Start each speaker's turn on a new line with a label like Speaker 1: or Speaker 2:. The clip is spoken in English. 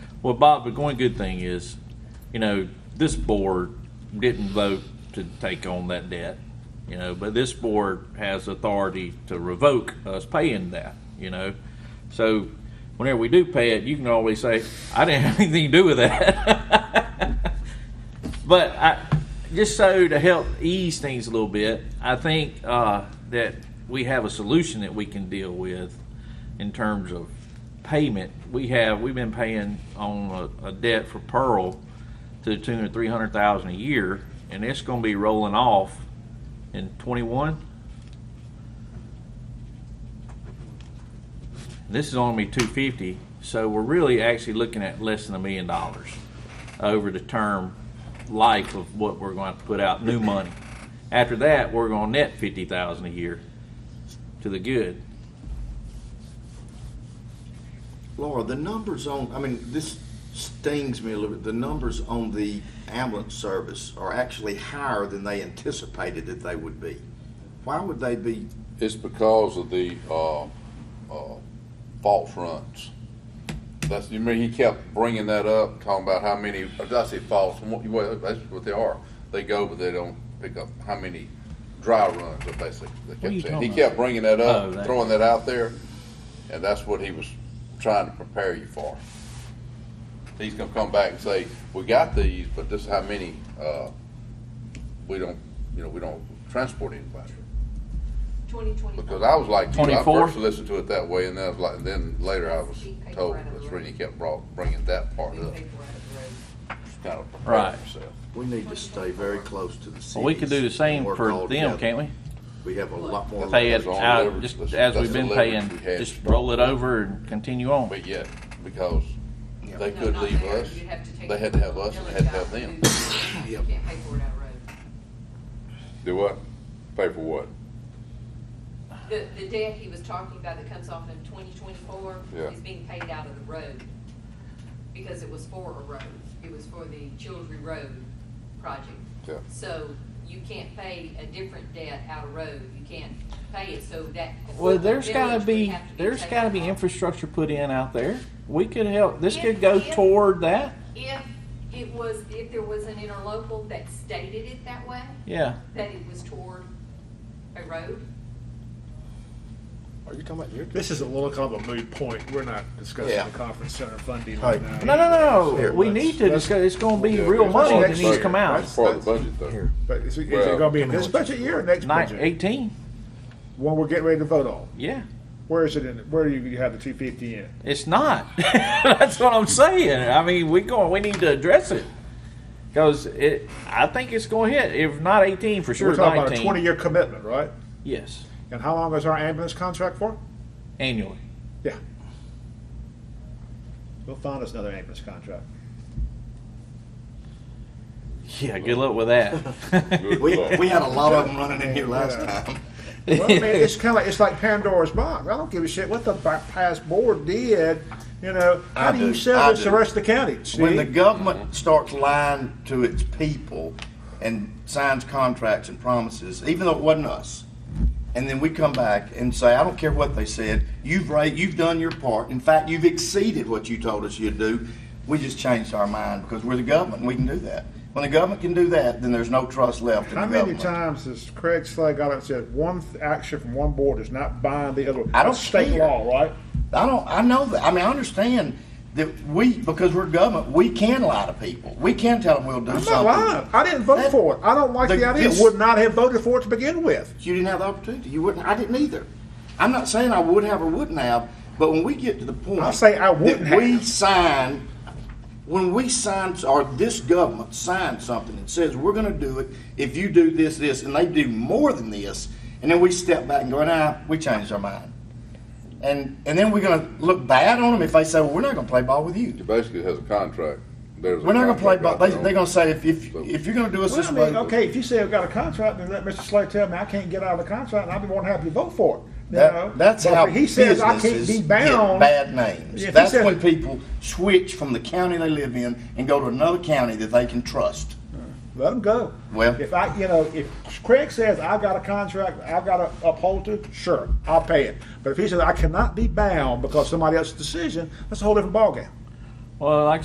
Speaker 1: Well, Bob, the one good thing is, you know, this board didn't vote to take on that debt, you know, but this board has authority to revoke us paying that, you know? So whenever we do pay it, you can always say, I didn't have anything to do with that. But I, just so to help ease things a little bit, I think uh, that we have a solution that we can deal with in terms of payment. We have, we've been paying on a, a debt for Pearl to the tune of three hundred thousand a year, and it's gonna be rolling off in twenty-one. This is only two fifty, so we're really actually looking at less than a million dollars over the term life of what we're going to put out, new money. After that, we're gonna net fifty thousand a year to the good.
Speaker 2: Laura, the numbers on, I mean, this stings me a little bit. The numbers on the ambulance service are actually higher than they anticipated that they would be. Why would they be?
Speaker 3: It's because of the uh, uh, false runs. That's you mean he kept bringing that up, talking about how many. Did I say false? Well, that's what they are. They go, but they don't pick up how many dry runs. Are basically, they
Speaker 1: are you
Speaker 3: kept saying. he
Speaker 1: talking
Speaker 3: kept bringing that up,
Speaker 1: Oh, that-
Speaker 3: throwing that out there, and that's what he was trying to prepare you for. He's gonna come back and say, "We got these, but this is how many. Uh, we don't, you know, we don't transport anybody."
Speaker 4: Twenty twenty.
Speaker 3: Because I was like, you, I
Speaker 1: 24?
Speaker 3: first listened to it that way, and then I was like, then later I was told that's when he kept brought, bringing that part up, just kind of
Speaker 1: Right.
Speaker 3: prepared yourself.
Speaker 2: We need to stay very close to the cities.
Speaker 1: Well, we could do the same
Speaker 2: and work all
Speaker 1: for them,
Speaker 2: together.
Speaker 1: can't we?
Speaker 2: We have a lot more.
Speaker 1: Pay
Speaker 3: That's
Speaker 1: it
Speaker 3: all
Speaker 1: out,
Speaker 3: leverage.
Speaker 1: just
Speaker 3: That's-
Speaker 1: as
Speaker 3: that's
Speaker 1: we've
Speaker 3: the
Speaker 1: been
Speaker 3: leverage
Speaker 1: paying,
Speaker 3: we had.
Speaker 1: just roll it over and continue on.
Speaker 3: But yet, because
Speaker 2: Yeah.
Speaker 3: they could leave us, they had to have us, and had to have them.
Speaker 4: You can't pay for it outright.
Speaker 3: Do what? Pay for what?
Speaker 4: The, the debt he was talking about that comes off in twenty twenty-four
Speaker 3: Yeah.
Speaker 4: is being paid out of the road. Because it was for a road. It was for the Childry Road project.
Speaker 3: Yeah.
Speaker 4: So you can't pay a different debt out of road. You can't pay it, so that.
Speaker 1: Well, there's
Speaker 4: village
Speaker 1: gotta
Speaker 4: would
Speaker 1: be,
Speaker 4: have to
Speaker 1: there's
Speaker 4: taken
Speaker 1: gotta be
Speaker 4: off.
Speaker 1: infrastructure put in out there. We could help, this could
Speaker 4: If-
Speaker 1: go
Speaker 4: if-
Speaker 1: toward that,
Speaker 4: If it was, if there was an interlocal that stated it that way,
Speaker 1: yeah.
Speaker 4: that it was toward a road,
Speaker 2: Are you talking about your?
Speaker 5: This is a little kind of a moot point. We're not discussing
Speaker 2: Yeah.
Speaker 5: the conference center funding
Speaker 2: Hey.
Speaker 5: right now.
Speaker 1: No, no, no,
Speaker 2: Here,
Speaker 1: we
Speaker 2: let's-
Speaker 1: need to,
Speaker 5: let's-
Speaker 1: discuss. it's gonna be
Speaker 3: Yeah,
Speaker 1: real
Speaker 3: that's
Speaker 1: money
Speaker 3: part
Speaker 1: that
Speaker 3: of the
Speaker 1: needs to
Speaker 3: budget.
Speaker 1: come out.
Speaker 3: That's part of the budget, though.
Speaker 5: But is it, is
Speaker 3: Well-
Speaker 5: it going to be in
Speaker 2: Tell me
Speaker 5: this
Speaker 2: what
Speaker 5: budget year or next
Speaker 1: Nine,
Speaker 5: budget?
Speaker 1: eighteen,
Speaker 5: One we're getting ready to vote on.
Speaker 1: yeah.
Speaker 5: Where is it in? Where do you, you have the 250 in?
Speaker 1: It's not. That's what I'm saying. I mean, we going. We need to address it because it. I think it's going to hit. If not 18, for sure
Speaker 5: we're talking
Speaker 1: 19.
Speaker 5: about a 20 year commitment, right?
Speaker 1: Yes,
Speaker 5: And how long is our ambulance contract for?
Speaker 1: annually.
Speaker 5: Yeah. We'll find us another ambulance contract.
Speaker 1: Yeah. Good luck with that.
Speaker 2: We, we had a lot of them running in here last
Speaker 5: Yeah.
Speaker 2: time.
Speaker 5: Well, I mean, it's kind of like, it's like Pandora's box. I don't give a shit what the bi- past board did. You know, how
Speaker 2: I
Speaker 5: do,
Speaker 2: do.
Speaker 5: you
Speaker 2: I
Speaker 5: sell this to
Speaker 2: do.
Speaker 5: the rest of the county?
Speaker 2: When
Speaker 5: Steve?
Speaker 2: the government starts lying to its people and signs contracts and promises, even though it wasn't us, and then we come back and say, I don't care what they said, you've ra you've done your part. In fact, you've exceeded what you told us you'd do. We just changed our mind because we're the government and we can do that. When the government can do that, then there's no trust left in
Speaker 5: How
Speaker 2: the
Speaker 5: many
Speaker 2: government.
Speaker 5: times has Craig Slay got up and said one th- action from one board does not bind the other?
Speaker 2: I don't
Speaker 5: That's state
Speaker 2: care.
Speaker 5: law, right?
Speaker 2: I don't. I know that. I mean, I understand that we, because we're government, we can lie to people. We can tell them we'll do
Speaker 5: I'm not
Speaker 2: something.
Speaker 5: lying. I didn't vote
Speaker 2: That-
Speaker 5: for it. I don't like
Speaker 2: the-
Speaker 5: the, idea.
Speaker 2: this-
Speaker 5: Would not have voted for it to begin with.
Speaker 2: You didn't have the opportunity. You wouldn't. I didn't either. I'm not saying I would have or wouldn't have, but when we get to the point,
Speaker 5: I say I wouldn't
Speaker 2: that we
Speaker 5: have.
Speaker 2: sign. When we sign, or this government signs something and says we're going to do it if you do this, this, and they do more than this, and then we step back and go, nah, we changed our mind, and and then we're going to look bad on them if they say, well, we're not going to play ball with you.
Speaker 3: basically has a contract. There's
Speaker 2: We're not going to play ball. They, they're going to say if if, if you're going to do us
Speaker 5: Well,
Speaker 2: this
Speaker 5: I mean,
Speaker 2: way,
Speaker 5: okay, if you say I've got a contract, then let Mr. Slay tell me I can't get out of the contract, and I'd be more than happy to vote for it. You
Speaker 2: That-
Speaker 5: know?
Speaker 2: that's
Speaker 5: But
Speaker 2: how
Speaker 5: if he says I can't
Speaker 2: businesses get
Speaker 5: be bound.
Speaker 2: Bad names.
Speaker 5: If he
Speaker 2: That's
Speaker 5: says-
Speaker 2: when people switch from the county they live in and go to another county that they can trust.
Speaker 5: Let them go.
Speaker 2: Well-
Speaker 5: if I, you know, if Craig says I've got a contract, I've got to uphold it, sure, I'll pay it. But if he says I cannot be bound because of somebody else's decision, that's a whole different ballgame.
Speaker 1: well, like